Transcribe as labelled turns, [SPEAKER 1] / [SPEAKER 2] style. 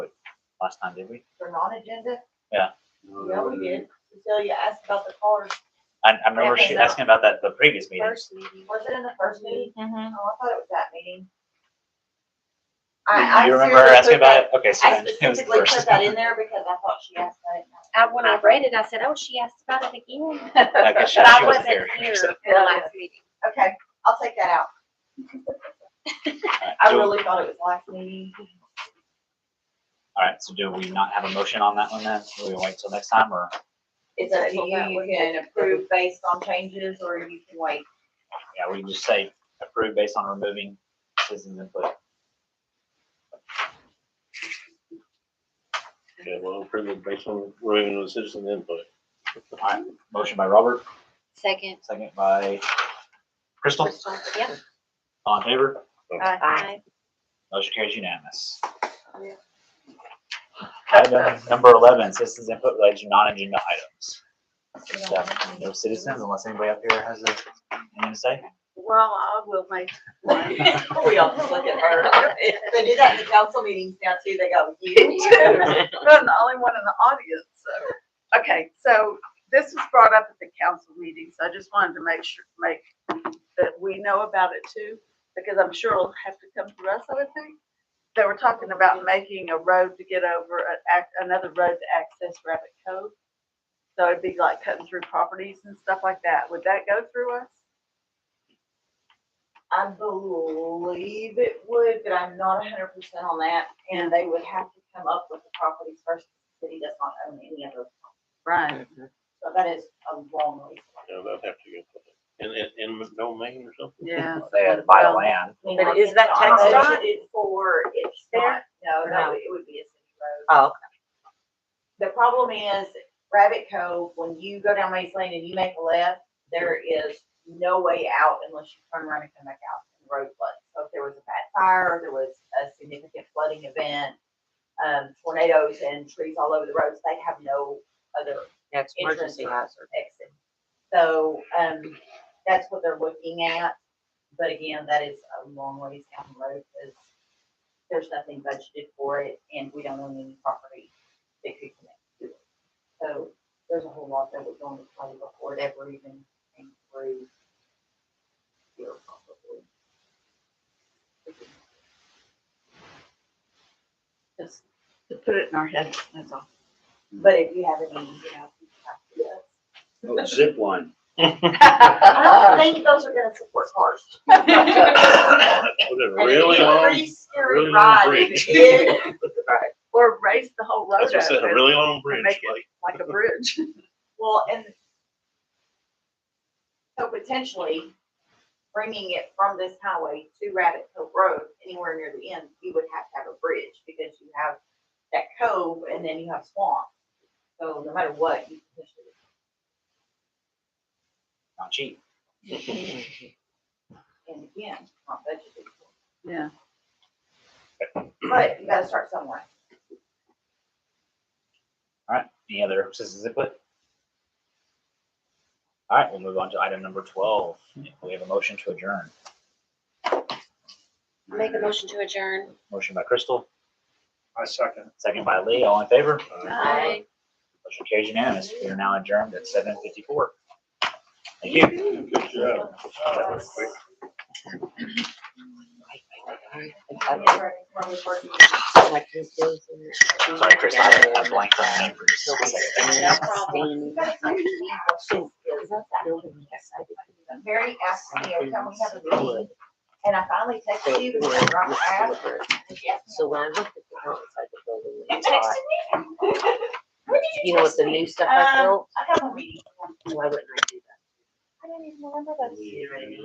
[SPEAKER 1] last time, did we?
[SPEAKER 2] for non-agenda?
[SPEAKER 1] Oh,
[SPEAKER 3] No, we did.
[SPEAKER 2] Cecilia asked about the cars.
[SPEAKER 1] I, I remember she
[SPEAKER 2] Yeah.
[SPEAKER 1] asking about that the previous meeting.
[SPEAKER 2] First meeting. Was it in the first meeting? Oh, I
[SPEAKER 4] Mhm.
[SPEAKER 2] thought it was that meeting. I, I.
[SPEAKER 1] You remember her
[SPEAKER 2] seriously
[SPEAKER 1] asking
[SPEAKER 2] put that-
[SPEAKER 1] about it? Okay, so
[SPEAKER 2] I
[SPEAKER 1] then it was the
[SPEAKER 2] specifically put
[SPEAKER 1] first.
[SPEAKER 2] that in there because I thought she asked that.
[SPEAKER 4] I, when I read it, I said, oh, she asked about it again.
[SPEAKER 1] I guess she-
[SPEAKER 4] But I
[SPEAKER 1] she wasn't
[SPEAKER 4] wasn't
[SPEAKER 1] here.
[SPEAKER 4] here
[SPEAKER 1] So-
[SPEAKER 4] for the last meeting.
[SPEAKER 2] Okay, I'll take that out.
[SPEAKER 1] Alright,
[SPEAKER 2] I
[SPEAKER 1] do-
[SPEAKER 2] really thought it was last meeting.
[SPEAKER 1] All right, so do we not have a motion on that one then? Do we wait till next time or?
[SPEAKER 2] It's up to you. You can approve based on changes or you can wait.
[SPEAKER 1] Yeah, we can just say approve based on removing citizens input.
[SPEAKER 3] Okay, well, approve it based on revenue and citizen input.
[SPEAKER 1] Motion by Robert,
[SPEAKER 4] Second.
[SPEAKER 1] second by Crystal.
[SPEAKER 4] Crystal. Yep.
[SPEAKER 1] All in favor?
[SPEAKER 4] Aye.
[SPEAKER 1] Motion carries unanimous.
[SPEAKER 2] Yeah.
[SPEAKER 1] Item number eleven, citizens input related to non-agenda items. So, No citizens unless anybody up here has a, anything to say?
[SPEAKER 4] Well, I will make.
[SPEAKER 2] We all just look at her. They do that in the council meetings now too. They go, you too.
[SPEAKER 5] I'm the only one in the audience, so. Okay, so this was brought up at the council meeting, so I just wanted to make sure, make, that we know about it too, because I'm sure it'll have to come to us, I would think. They were talking about making a road to get over, an ac- another road to access Rabbit Cove. So it'd be like cutting through properties and stuff like that. Would that go through us?
[SPEAKER 2] I believe it would, but I'm not hundred percent on that, and they would have to come up with the properties first, the city does not own any of those.
[SPEAKER 5] Right.
[SPEAKER 2] So that is a long way.
[SPEAKER 3] Yeah, that'd have to go. In, in, in domain or something?
[SPEAKER 5] Yeah.
[SPEAKER 1] They had to buy the land.
[SPEAKER 2] I mean,
[SPEAKER 5] But
[SPEAKER 2] like,
[SPEAKER 5] is that
[SPEAKER 2] it's not
[SPEAKER 5] text dot?
[SPEAKER 2] budgeted For, it's not,
[SPEAKER 5] There?
[SPEAKER 2] no,
[SPEAKER 5] No.
[SPEAKER 2] no, it would be a city road.
[SPEAKER 5] Oh,
[SPEAKER 2] The problem is Rabbit Cove, when you go down Maze Lane and you make a left, there is no way out unless you turn around and come back out and the road floods. So if there was a bad fire, there was a significant flooding event, um, tornadoes and trees all over the roads, they have no other
[SPEAKER 6] That's
[SPEAKER 2] emergency
[SPEAKER 6] emergency hazard.
[SPEAKER 2] exit. So, um, that's what they're looking at, but again, that is a long ways down the road, because there's nothing budgeted for it, and we don't own any property that could connect to it. So, there's a whole lot that would go into play before it ever even came through. here, probably.
[SPEAKER 5] Just to put it in our heads, that's all.
[SPEAKER 2] But if you have any, you know. you have
[SPEAKER 7] Zip line.
[SPEAKER 2] to- I don't think those are gonna support cars.
[SPEAKER 3] With a
[SPEAKER 2] And
[SPEAKER 3] really
[SPEAKER 2] it's a
[SPEAKER 3] long,
[SPEAKER 2] Pretty scary
[SPEAKER 3] really long
[SPEAKER 2] ride.
[SPEAKER 3] bridge.
[SPEAKER 2] It is.
[SPEAKER 5] Or raise the whole road
[SPEAKER 3] that's
[SPEAKER 5] up
[SPEAKER 3] what I said, a
[SPEAKER 5] and
[SPEAKER 3] really long bridge,
[SPEAKER 5] make it
[SPEAKER 3] like,
[SPEAKER 5] like a bridge.
[SPEAKER 2] Well, and so potentially bringing it from this highway to Rabbit Cove Road, anywhere near the end, you would have to have a bridge because you have that cove and then you have swamp. So no matter what, you potentially.
[SPEAKER 1] Not cheap.
[SPEAKER 2] And again, it's not budgeted for.
[SPEAKER 5] Yeah.
[SPEAKER 2] But you gotta start somewhere.
[SPEAKER 1] All right, any other citizens input? All right, we'll move on to item number twelve. We have a motion to adjourn.
[SPEAKER 4] Make a motion to adjourn.
[SPEAKER 1] Motion by Crystal,
[SPEAKER 7] I second.
[SPEAKER 1] second by Lee, all in favor?
[SPEAKER 2] Aye.
[SPEAKER 1] Motion carries unanimous. We are now adjourned at seven fifty-four. Thank you.
[SPEAKER 3] good job. That was quick.
[SPEAKER 6] Like these days and-
[SPEAKER 1] Sorry, Chris, I I blanked on the name for just a second.
[SPEAKER 6] No problem.
[SPEAKER 2] Is that that building? Mary asked me, every time we have a meeting, and I finally texted you because Rob asked. and she asked me,
[SPEAKER 6] So when I looked at the outside of the building,
[SPEAKER 2] You
[SPEAKER 6] it's hot.
[SPEAKER 2] texted me? What did
[SPEAKER 6] You know, with the new stuff I
[SPEAKER 2] Um,
[SPEAKER 6] built,
[SPEAKER 2] I got a meeting.
[SPEAKER 6] why wouldn't I do that?
[SPEAKER 2] I don't even remember those.
[SPEAKER 6] You know what I mean?